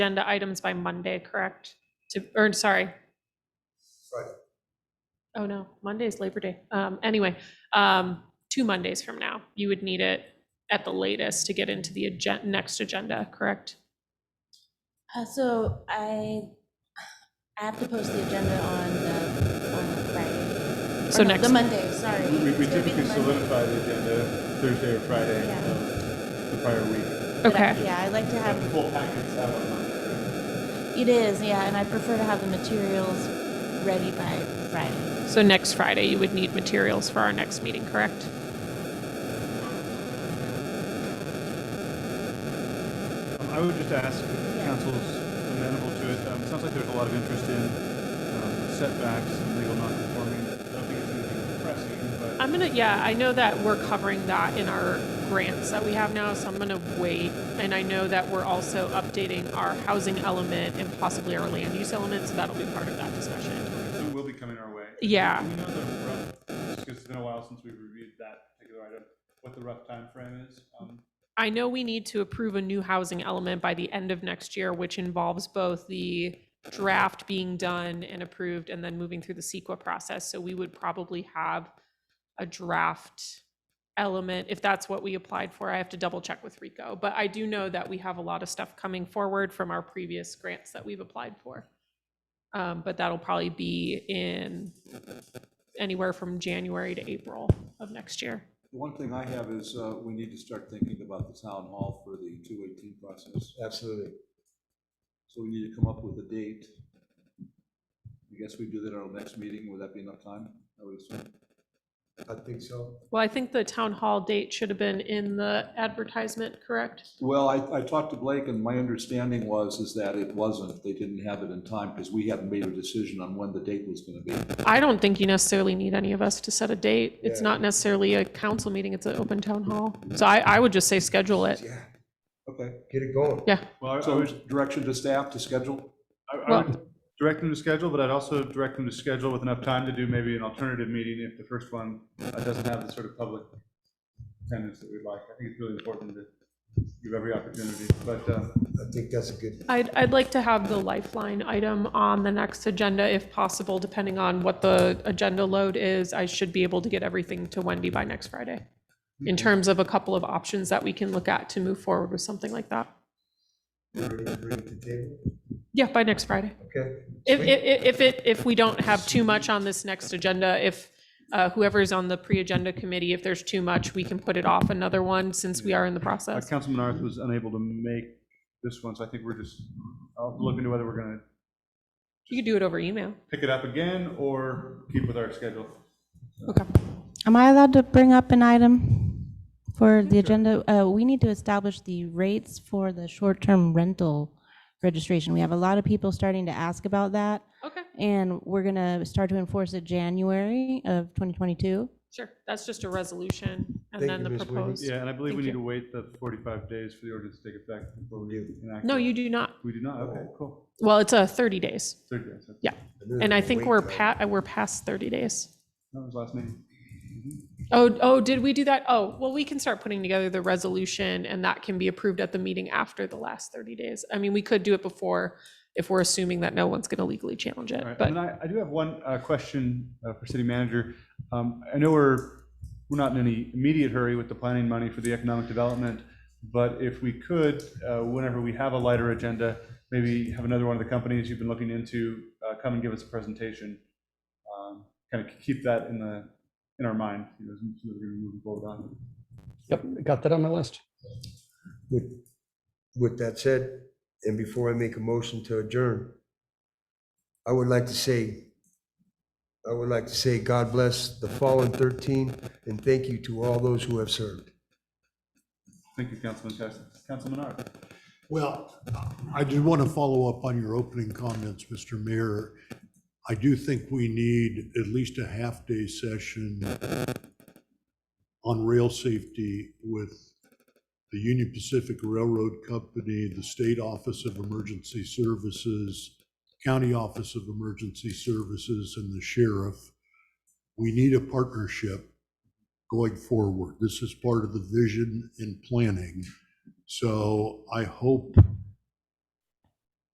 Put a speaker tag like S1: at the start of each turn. S1: agenda items by Monday, correct? To, or, sorry.
S2: Friday.
S1: Oh, no, Monday is Labor Day. Um, anyway, um, two Mondays from now, you would need it at the latest to get into the agen, next agenda, correct?
S3: Uh, so I, I have to post the agenda on the, on the Friday. Or
S1: So
S3: no,
S1: next-
S3: The Monday, sorry.
S4: We we
S3: It's gonna be the
S4: typically
S3: Monday.
S4: solidify the agenda Thursday or Friday
S3: Yeah.
S4: of the prior week.
S3: But I-
S1: Okay.
S3: Yeah, I like to
S4: Have the
S3: have,
S4: full packets out on Monday.
S3: it is, yeah, and I prefer to have the materials ready by Friday.
S1: So next Friday, you would need materials for our next meeting, correct?
S4: Um, I would just ask if the council's amenable to it. Um, It sounds like there's a lot of interest in um, setbacks and legal non-conforming. I don't think it's anything pressing, but
S1: I'm gonna, yeah, I know that we're covering that in our grants that we have now, so I'm gonna wait. And I know that we're also updating our housing element and possibly our land use element, so that'll be part of that discussion.
S4: so it will be coming our way.
S1: Yeah.
S4: Do we know the rough, just 'cause it's been a while since we reviewed that particular item, what the rough time frame is? Um,
S1: I know we need to approve a new housing element by the end of next year, which involves both the draft being done and approved and then moving through the CEQA process. So we would probably have a draft element, if that's what we applied for. I have to double check with Rico. But I do know that we have a lot of stuff coming forward from our previous grants that we've applied for. Um, but that'll probably be in anywhere from January to April of next year.
S5: The One thing I have is, uh, we need to start thinking about the town hall for the two eighteen process.
S2: Absolutely.
S5: So we need to come up with a date. I guess we do that at our next meeting. Would that be enough time? I would assume.
S2: I think so.
S1: Well, I think the town hall date should have been in the advertisement, correct?
S5: Well, I, I talked to Blake and my understanding was, is that it wasn't. They didn't have it in time because we hadn't made a decision on when the date was gonna be.
S1: I don't think you necessarily need any of us to set a date. It's
S2: Yeah.
S1: not necessarily a council meeting, it's an open town hall. So I, I would just say schedule it.
S2: Yeah,
S5: Okay,
S2: get it going.
S1: Yeah.
S4: Well, I I
S5: so
S4: would
S5: direction to staff to schedule?
S4: I, I
S1: Well-
S4: would direct them to schedule, but I'd also direct them to schedule with enough time to do maybe an alternative meeting if the first one uh, doesn't have the sort of public attendance that we'd like. I think it's really important to give every opportunity, but, um,
S2: I think that's a good,
S1: I'd, I'd like to have the lifeline item on the next agenda if possible, depending on what the agenda load is. I should be able to get everything to Wendy by next Friday in terms of a couple of options that we can look at to move forward with something like that.
S2: bring it bring it to table,
S1: Yeah, by next Friday.
S2: okay?
S1: If,
S2: Sweet.
S1: if, if it, if we don't have too much on this next agenda, if uh, whoever's on the pre-agenda committee, if there's too much, we can put it off another one since we are in the
S4: uh,
S1: process.
S4: Councilman Arth was unable to make this one, so I think we're just, I'll look into whether we're gonna
S1: You could do it over email.
S4: pick it up again or keep with our schedule.
S1: Okay.
S3: Am I allowed to bring up an item for the agenda? Uh, we need to establish the rates for the short-term rental registration. We have a lot of people starting to ask about that.
S1: Okay,
S3: And we're going to start to enforce it January of 2022.
S1: sure. That's just a resolution and
S2: Thank
S1: then
S2: you,
S1: the
S2: Ms. Whitney.
S1: proposed.
S4: Yeah, and I believe we
S1: Thank
S4: need
S1: you.
S4: to wait the forty-five days for the order to take effect before we enact.
S1: No,
S4: it.
S1: you do not.
S4: We do not, okay, cool.
S1: Well, it's a 30 days.
S4: Thirty days, okay.
S2: knew
S1: And
S2: there
S1: I
S2: was a
S1: think
S2: wait
S1: we're
S2: time.
S1: pa, uh, we're past 30 days.
S4: that was last meeting.
S1: Oh, oh, did we do that? Oh, well, we can start putting together the resolution and that can be approved at the meeting after the last 30 days. I mean, we could do it before if we're assuming that no one's going to legally challenge it,
S4: All right,
S1: but.
S4: And I, I do have one uh, question uh, for city manager. Um, I know we're, we're not in any immediate hurry with the planning money for the economic development, but if we could, uh, whenever we have a lighter agenda, maybe have another one of the companies you've been looking into uh, come and give us a presentation. Kind of keep that in the, in our mind, you know, as we're moving forward on.
S6: Yep, got that on my list.
S2: With- With that said, and before I make a motion to adjourn, I would like to say, I would like to say God bless the fallen 13 and thank you to all those who have served.
S4: Thank you, Councilman Tyson. Councilman Art.
S7: Well, I do want to follow up on your opening comments, Mr. Mayor. I do think we need at least a half-day session on rail safety with the Union Pacific Railroad Company, the State Office of Emergency Services, County Office of Emergency Services, and the sheriff. We need a partnership going forward. This is part of the vision and planning. So I hope